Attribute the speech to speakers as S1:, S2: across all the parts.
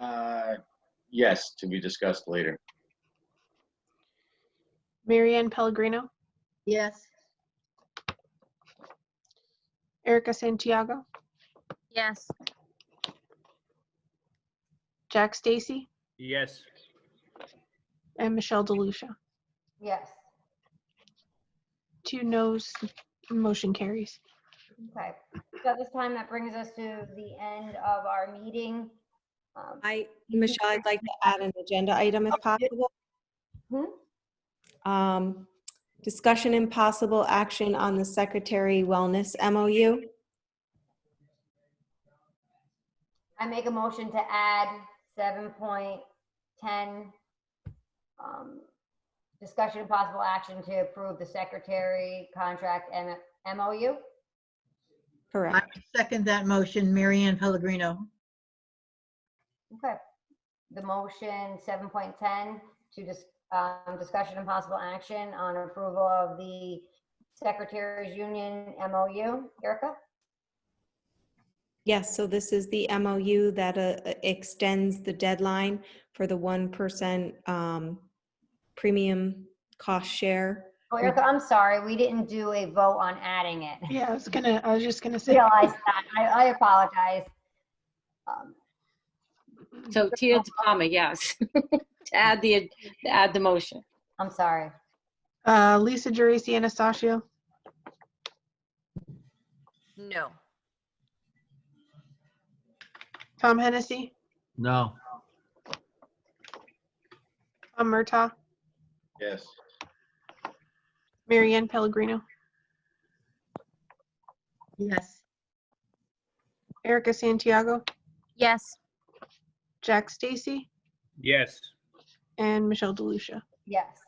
S1: Uh, Yes, to be discussed later.
S2: Marianne Pellegrino,
S3: Yes.
S2: Erica Santiago,
S3: Yes.
S2: Jack Stacy,
S4: Yes.
S2: and Michelle DeLucia.
S5: Yes.
S2: Two noes, motion carries.
S5: Okay. So at this time, that brings us to the end of our meeting. Um,
S6: I, Michelle, I'd like to add an agenda item if possible.
S5: Hmm?
S6: Um, Discussion and possible action on the Secretary Wellness MOU.
S5: I make a motion to add seven point ten. um, Discussion and possible action to approve the secretary contract and MOU.
S3: I
S6: Correct.
S3: second that motion, Marianne Pellegrino.
S5: Okay. The motion seven point ten to dis- um, discussion and possible action on approval of the secretary's union MOU. Erica?
S6: Yes, so this is the MOU that uh, extends the deadline for the 1% um, premium cost share.
S5: Oh, Erica, I'm sorry, we didn't do a vote on adding it.
S2: Yeah, I was gonna, I was just gonna say,
S5: Realize that. I, I apologize. Um,
S7: So Tia DePalma, yes. To add the, to add the motion.
S5: I'm sorry.
S2: uh, Lisa Geraci Anastasio,
S3: No.
S2: Tom Hennessy,
S4: No.
S2: Tom Murtaugh,
S1: Yes.
S2: Marianne Pellegrino,
S3: Yes.
S2: Erica Santiago,
S3: Yes.
S2: Jack Stacy,
S4: Yes.
S2: and Michelle DeLucia.
S5: Yes.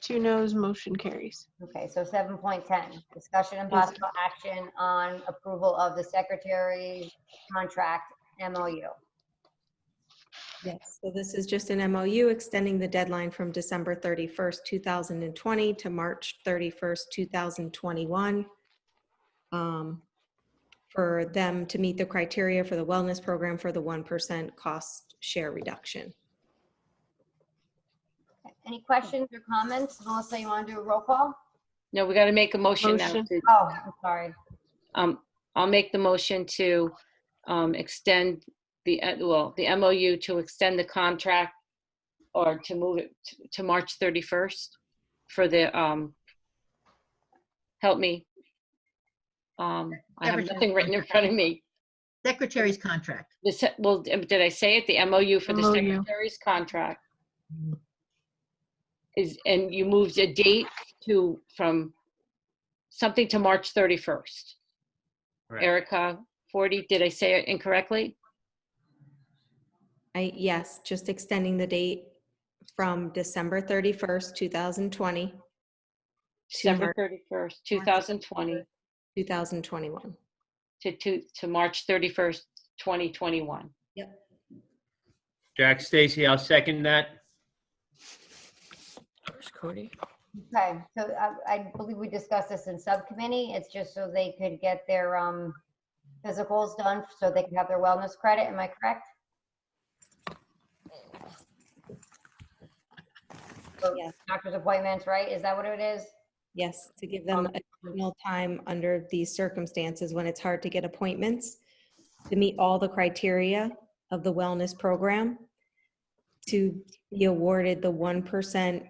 S2: Two noes, motion carries.
S5: Okay, so seven point ten, discussion and
S2: Yes.
S5: possible action on approval of the secretary's contract MOU.
S6: Yes, so this is just an MOU extending the deadline from December 31st, 2020 to March 31st, 2021 um, for them to meet the criteria for the wellness program for the 1% cost share reduction.
S5: Any questions or comments? Melissa, you want to do a roll call?
S7: No, we got to make a motion now.
S2: Motion.
S7: to-
S5: Oh, I'm sorry.
S7: um, I'll make the motion to um, extend the, uh, well, the MOU to extend the contract or to move it t- to March 31st for the, um, help me. Um, I have
S3: Everton.
S7: nothing written in front of me.
S3: Secretary's contract.
S7: The, se- well, um, did I say it? The MOU for the
S2: MOU.
S7: secretary's contract? Is, and you moved a date to, from something to March 31st.
S4: Correct.
S7: Erica, 40, did I say it incorrectly?
S6: I, yes, just extending the date from December 31st, 2020
S7: December
S6: Mar-
S7: 31st, 2020
S6: 2021.
S7: to, to, to March 31st, 2021.
S4: Jack Stacy, I'll second that.
S5: Okay, so I, I believe we discussed this in subcommittee. It's just so they could get their, um, physicals done so they can have their wellness credit. Am I correct? So
S6: Yes.
S5: Doctor's appointments, right? Is that what it is?
S6: Yes, to give them additional time under these circumstances when it's hard to get appointments, to meet all the criteria of the wellness program, to be awarded the 1%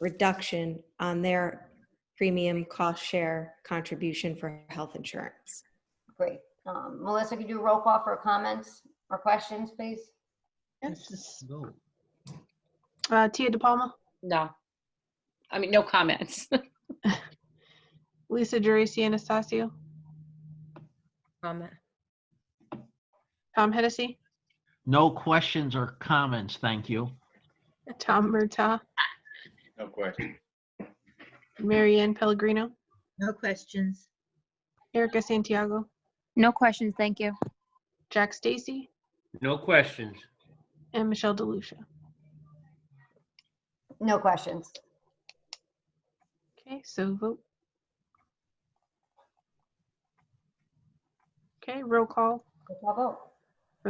S6: reduction on their premium cost share contribution for health insurance.
S5: Great. Um, Melissa, could you roll call for comments or questions, please?
S3: This is-
S4: No.
S2: Uh, Tia DePalma,
S7: No. I mean, no comments.
S2: Lisa Geraci Anastasio,
S8: comment.
S2: Tom Hennessy,
S9: No questions or comments, thank you.
S2: Tom Murtaugh,
S1: No question.
S2: Marianne Pellegrino,
S3: No questions.
S2: Erica Santiago,
S10: No questions, thank you.
S2: Jack Stacy,
S4: No questions.
S2: and Michelle DeLucia.
S5: No questions.
S2: Okay, so vote. Okay, roll call.
S5: Roll call vote.